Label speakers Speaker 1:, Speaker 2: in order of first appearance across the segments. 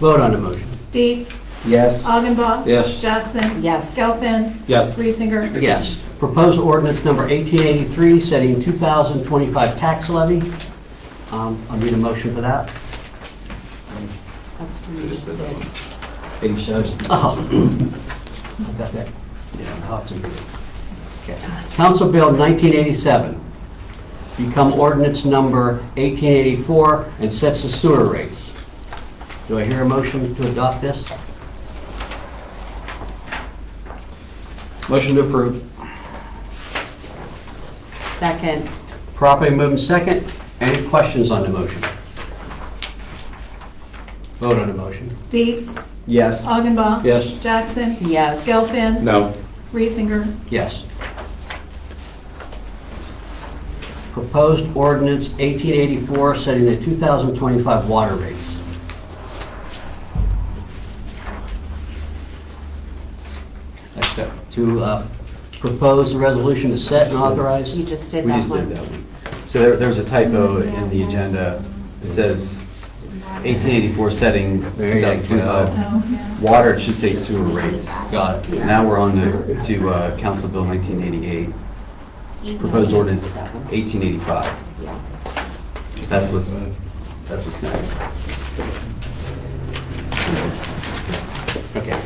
Speaker 1: Vote on the motion.
Speaker 2: Dietz.
Speaker 3: Yes.
Speaker 2: Augenbaum.
Speaker 1: Yes.
Speaker 2: Jackson.
Speaker 4: Yes.
Speaker 2: Gelfen.
Speaker 1: Yes.
Speaker 2: Reesinger.
Speaker 1: Yes. Proposed ordinance number 1883, setting 2025 tax levy. Um, I'll need a motion for that.
Speaker 4: That's what you just did.
Speaker 3: Big shows.
Speaker 1: Oh, I've got that, yeah, how it's in here. Okay. Council Bill 1987, become ordinance number 1884 and sets the sewer rates. Do I hear a motion to adopt this?
Speaker 3: Motion to approve.
Speaker 4: Second.
Speaker 1: Properly moved in second. Any questions on the motion? Vote on the motion.
Speaker 2: Dietz.
Speaker 3: Yes.
Speaker 2: Augenbaum.
Speaker 1: Yes.
Speaker 2: Jackson.
Speaker 4: Yes.
Speaker 2: Gelfen.
Speaker 3: No.
Speaker 2: Reesinger.
Speaker 1: Yes. Proposed ordinance 1884, setting the 2025 water rates. Next up, To uh, propose a resolution to set and authorize.
Speaker 4: You just did
Speaker 5: We
Speaker 4: that
Speaker 5: just did
Speaker 4: one. Mm-hmm.
Speaker 5: that one. So there, there was a typo in the agenda. It says 1884 setting
Speaker 1: There you go.
Speaker 5: 2025.
Speaker 2: No.
Speaker 5: Water, it should say sewer rates.
Speaker 1: Got it.
Speaker 5: Now we're on to, to uh, Council Bill 1988,
Speaker 4: You
Speaker 5: proposed
Speaker 4: just did
Speaker 5: ordinance
Speaker 4: that one.
Speaker 5: 1885.
Speaker 4: Yes.
Speaker 5: That's what's, that's what's next.
Speaker 1: Okay.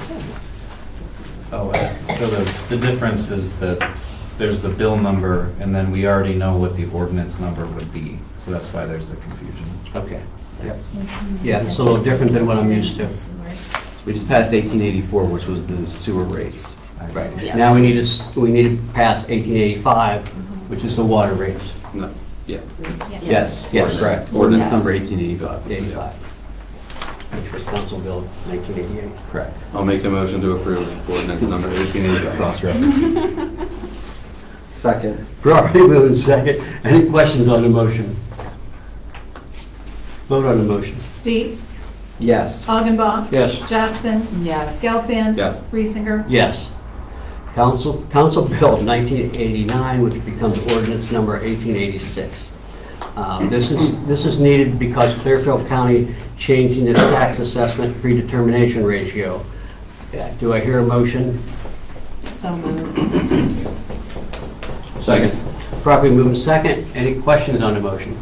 Speaker 6: Oh, I see. so the, the difference is that there's the bill number, and then we already know what the ordinance number would be, so that's why there's the confusion.
Speaker 1: Okay. Yep. Yeah, it's a little different than what I'm used to.
Speaker 5: We just passed 1884, which was the sewer rates.
Speaker 6: I see.
Speaker 1: Right.
Speaker 4: Yes.
Speaker 1: Now we need to, s- we need to pass 1885, which is the water rates,
Speaker 5: No, yeah.
Speaker 4: Yes.
Speaker 5: Yes,
Speaker 1: Yes.
Speaker 5: yes, correct. Ordinance
Speaker 4: Yes.
Speaker 5: number 1885.
Speaker 1: 85. Which was Council Bill 1988.
Speaker 5: Correct.
Speaker 7: I'll make a motion to approve ordinance number 1885.
Speaker 5: Cross-reference.
Speaker 3: Second.
Speaker 1: Properly moved in second. Any questions on the motion? Vote on the motion.
Speaker 2: Dietz.
Speaker 3: Yes.
Speaker 2: Augenbaum.
Speaker 1: Yes.
Speaker 2: Jackson.
Speaker 4: Yes.
Speaker 2: Gelfen.
Speaker 7: Yes.
Speaker 2: Reesinger.
Speaker 1: Yes. Council, Council Bill 1989, which becomes ordinance number 1886. Um, This is, this is needed because Clearfield County changing its tax assessment predetermination ratio. Yeah, Do I hear a motion?
Speaker 4: So moved.
Speaker 7: Second.
Speaker 1: Properly moved in second. Any questions on the motion?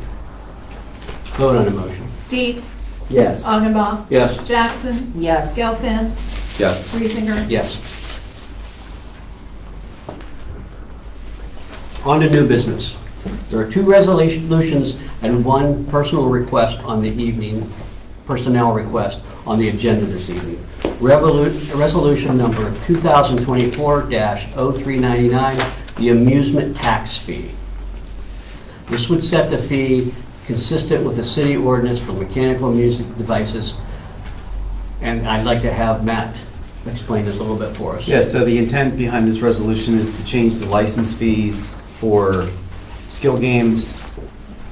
Speaker 1: Vote on the motion.
Speaker 2: Dietz.
Speaker 3: Yes.
Speaker 2: Augenbaum.
Speaker 1: Yes.
Speaker 2: Jackson.
Speaker 4: Yes.
Speaker 2: Gelfen.
Speaker 7: Yes.
Speaker 2: Reesinger.
Speaker 1: Yes. On to new business. There are two resolutions and one personal request on the evening, personnel request on the agenda this evening. Revolu- Resolution number 2024-0399, the amusement tax fee. This would set the fee consistent with the city ordinance for mechanical music devices, and I'd like to have Matt explain this a little bit for us.
Speaker 5: Yeah, so the intent behind this resolution is to change the license fees for skill games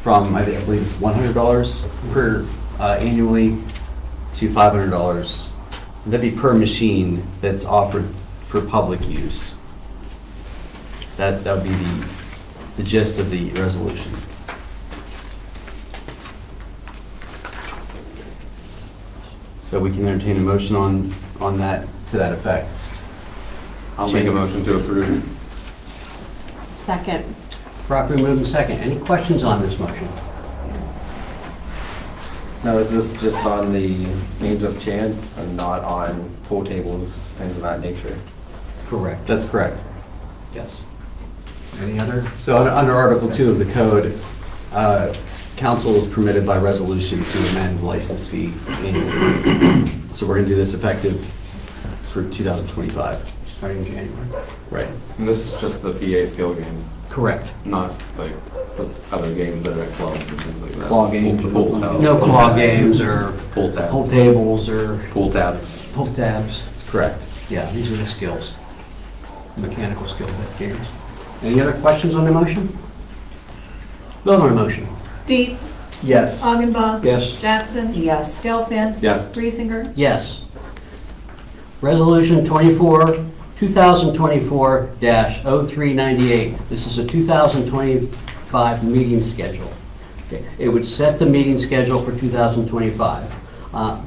Speaker 5: from, I think- I believe it's $100 per uh, annually to $500. That'd be per machine that's offered for public use. That, that would be the- the gist of the resolution. So we can entertain a motion on, on that, to that effect.
Speaker 7: I'll make a motion to approve.
Speaker 4: Second.
Speaker 1: Properly moved and second. Any questions on this motion?
Speaker 3: Now, is this just on the games of chance and not on pool tables, things of that nature?
Speaker 1: Correct.
Speaker 5: That's correct.
Speaker 1: Yes.
Speaker 6: Any other?
Speaker 5: So un- under Article 2 of the code, uh, council is permitted by resolution to amend license fee annually. So we're going to do this effective for 2025.
Speaker 1: Starting January.
Speaker 5: Right.
Speaker 7: And this is just the PA skill games,
Speaker 1: Correct.
Speaker 7: not like the other games that are at clubs and things like that.
Speaker 5: Claw games.
Speaker 7: Pool- Pool tab.
Speaker 1: No claw games or
Speaker 7: Pool
Speaker 1: pool
Speaker 7: tabs.
Speaker 1: tables or
Speaker 7: Pool tabs.
Speaker 1: poke tabs.
Speaker 5: That's correct.
Speaker 1: Yeah, these are the skills, mechanical skill games. Any other questions on the motion? Vote on the motion.
Speaker 2: Dietz.
Speaker 3: Yes.
Speaker 2: Augenbaum.
Speaker 1: Yes.
Speaker 2: Jackson.
Speaker 4: Yes.
Speaker 2: Gelfen.
Speaker 7: Yes.
Speaker 2: Reesinger.
Speaker 1: Yes. Resolution 24, 2024-0398. This is a 2025 meeting schedule. Okay, It would set the meeting schedule for 2025. Uh,